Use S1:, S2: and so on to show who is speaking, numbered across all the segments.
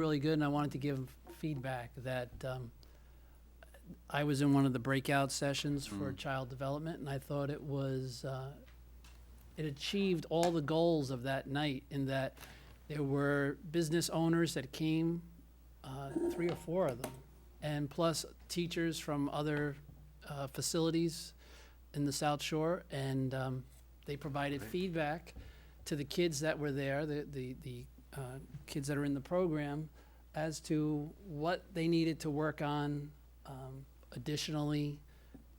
S1: really good, and I wanted to give feedback that um, I was in one of the breakout sessions for child development, and I thought it was, uh, it achieved all the goals of that night in that there were business owners that came, uh, three or four of them, and plus teachers from other uh, facilities in the South Shore, and um, they provided feedback to the kids that were there, the, the, the uh, kids that are in the program, as to what they needed to work on um, additionally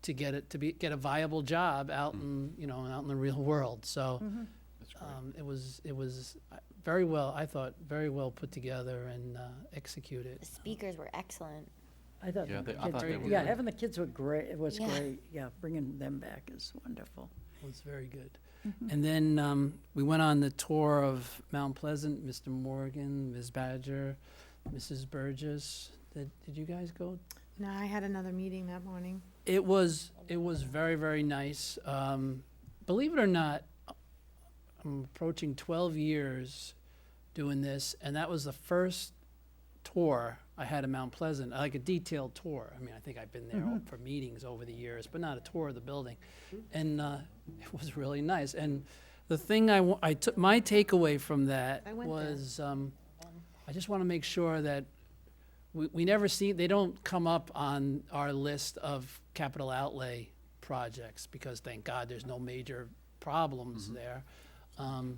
S1: to get it, to be, get a viable job out in, you know, out in the real world. So um, it was, it was uh, very well, I thought, very well put together and uh, executed.
S2: The speakers were excellent.
S3: I thought,
S4: Yeah,
S3: the
S4: they- I thought
S3: kids
S4: they
S3: were-
S4: were
S3: yeah,
S4: good.
S3: having the kids were great, it was
S2: Yeah.
S3: great, yeah, bringing them back is wonderful.
S1: was very good. And then um, we went on the tour of Mount Pleasant, Mr. Morgan, Ms. Badger, Mrs. Burgess. Did, did you guys go?
S5: No, I had another meeting that morning.
S1: It was, it was very, very nice. Um, Believe it or not, I'm approaching 12 years doing this, and that was the first tour I had in Mount Pleasant, like a detailed tour. I mean, I think I've been there
S5: Mm-hmm.
S1: for meetings over the years, but not a tour of the building. And uh, it was really nice. And the thing I, wa- I took, my takeaway from that
S5: I went there.
S1: was, um, I just want to make sure that we, we never see, they don't come up on our list of capital outlay projects, because thank God there's no major problems
S5: Mm-hmm.
S1: there. Um,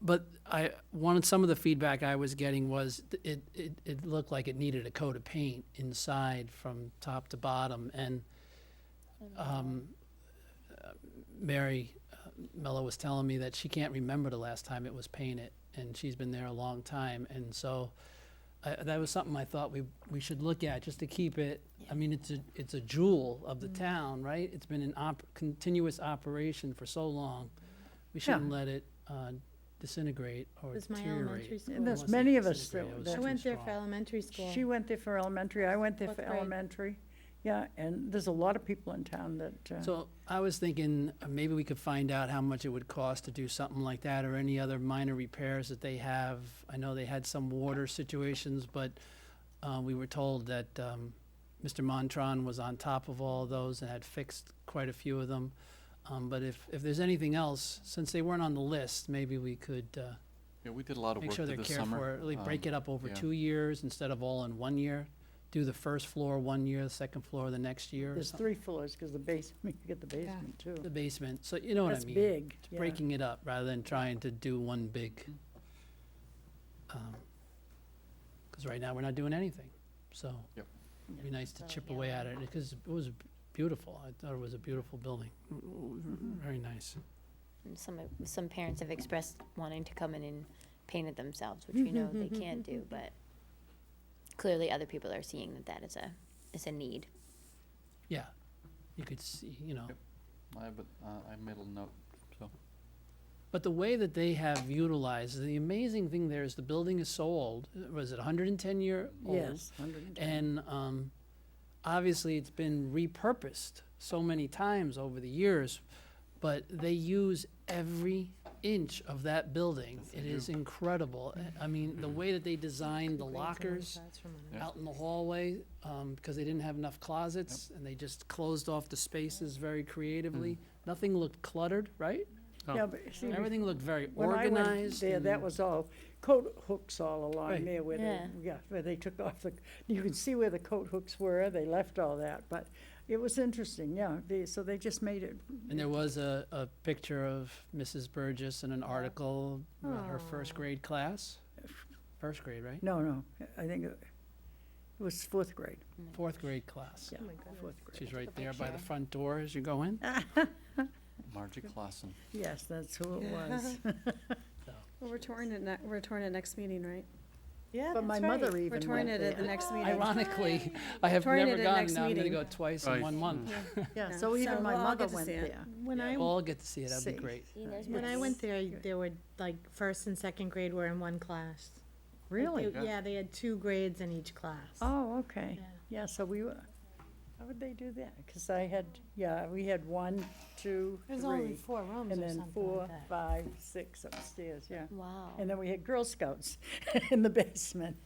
S1: but I wanted some of the feedback I was getting was th- it, it, it looked like it needed a coat of paint inside from top to bottom. And um, uh, Mary uh, Mello was telling me that she can't remember the last time it was painted, and she's been there a long time. And so I that was something I thought we, we should look at just to keep it. I mean, it's a, it's a jewel of the town, right? It's been an op, continuous operation for so long. We shouldn't let it uh, disintegrate or
S5: It was my elementary
S1: deteriorate.
S5: school.
S3: And
S1: I
S3: there's
S1: wanna say
S3: many of us
S1: disintegrate,
S3: that-
S1: it was
S3: that-
S5: I
S1: too
S5: went there
S1: strong.
S5: for elementary school.
S3: She went there for elementary, I went there
S5: Fourth
S3: for
S5: grade.
S3: elementary, yeah, and there's a lot of people in town that, uh,
S1: So I was thinking, uh, maybe we could find out how much it would cost to do something like that or any other minor repairs that they have. I know they had some water situations, but uh, we were told that um, Mr. Montron was on top of all those and had fixed quite a few of them. Um, But if, if there's anything else, since they weren't on the list, maybe we could uh,
S4: Yeah, we did a lot of
S1: make
S4: work
S1: sure
S4: through
S1: they're
S4: the
S1: cared for,
S4: summer.
S1: really break
S4: um,
S1: it up over
S4: yeah.
S1: two years instead of all in one year. Do the first floor one year, the second floor the next year, or
S3: there's
S1: something,
S3: three floors, because the basement, you get the basement too.
S1: the basement. So you know what I
S3: That's
S1: mean?
S3: big,
S1: It's
S3: yeah.
S1: breaking it up rather than trying to do one big.
S3: Mm-hmm.
S1: Because right now, we're not doing anything, so.
S4: Yep.
S1: It'd be nice to chip
S2: yeah.
S1: away at it, because it was beautiful, I thought it was a beautiful building,
S3: Mm-hmm.
S1: very nice.
S2: And some, some parents have expressed wanting to come in and paint it themselves, which we know they can't do, but clearly other people are seeing that that is a, is a need.
S1: Yeah, you could see, you know,
S4: Yep. I, but, uh, I made a note, so.
S1: but the way that they have utilized, the amazing thing there is the building is so old, was it hundred and ten year old?
S3: Yes, 110.
S1: And um, obviously, it's been repurposed so many times over the years, but they use every inch of that building. It is incredible. I mean, the way that they designed the lockers
S4: Yeah.
S1: out in the hallway, um, because they didn't have enough closets, and they just closed off the spaces very creatively. Nothing looked cluttered, right?
S3: Yeah, but see,
S1: Everything looked very
S3: when I went
S1: um, organized.
S3: there, that
S1: and-
S3: was all coat hooks all
S1: Right.
S3: along there where they,
S2: Yeah.
S3: yeah, where they took off the, you can see where the coat hooks were, they left all that, but it was interesting, yeah, they, so they just made it
S1: And there was a, a picture of Mrs. Burgess in an article, about her first grade class, first grade, right?
S3: No, no, I think it it was fourth grade,
S1: Fourth grade class.
S3: yeah,
S5: Oh my goodness.
S3: fourth grade.
S1: She's right there by the front door as you go in.
S3: Oh,
S4: Margie Clausen.
S3: Yes, that's who it was.
S6: Well, we're touring it, ne- we're touring it next meeting, right?
S5: Yeah,
S3: But my mother even
S6: We're
S3: went
S6: touring it at the
S3: there.
S6: next meeting.
S1: Ironically, I have
S6: Victoria
S1: never
S6: did it
S1: gone,
S6: next
S1: now I'm gonna
S6: meeting.
S1: go twice in
S4: Right.
S1: one month.
S3: Yeah,
S6: Yeah.
S3: so even
S6: So
S3: my
S6: we'll all
S3: mother
S6: get to
S3: went
S6: see it.
S3: there.
S5: When I,
S1: We'll all get to see it, that'd be
S3: See.
S1: great.
S5: when I went there, there were, like, first and second grade were in one class. Like,
S3: Really?
S5: they- Yeah, they had two grades in each class.
S3: Oh, okay,
S5: Yeah.
S3: yeah, so we were, how would they do that? Because I had, yeah, we had one, two,
S5: There's only
S3: three,
S5: four rooms
S3: and
S5: or
S3: then
S5: something
S3: four,
S5: like that.
S3: five, six upstairs, yeah.
S2: Wow.
S3: And then we had Girl Scouts in the basement.